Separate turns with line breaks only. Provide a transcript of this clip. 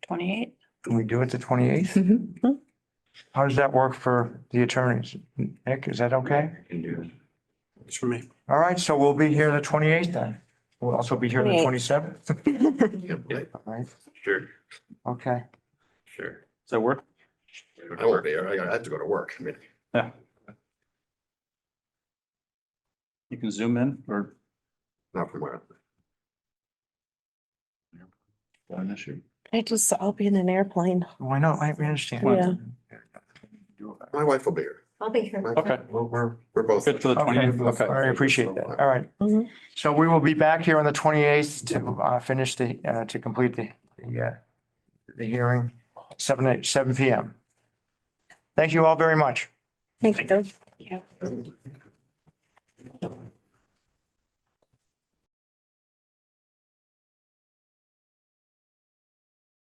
twenty-eighth.
Can we do it the twenty-eighth? How does that work for the attorneys? Nick, is that okay?
Can do it.
It's for me.
All right, so we'll be here the twenty-eighth then. We'll also be here the
28th.
twenty-seventh.
Yep,
All right,
Sure,
okay.
sure.
Does that work?
I won't be, here. I gotta- I have to go to work. I mean,
You can zoom in or?
not from where.
An issue.
I just, I'll be in an airplane.
Why not? Oh, I we understand.
Yeah.
My wife will be here.
I'll be here.
My-
Okay,
We're, we're,
We're both.
good for the
okay,
twenty. Okay.
I appreciate that. All right.
Mhm.
So we will be back here on the twenty-eighth to, uh, finish the, uh, to complete the, the, uh, the hearing, seven, eight, seven P M. Thank you all very much.
Thank you.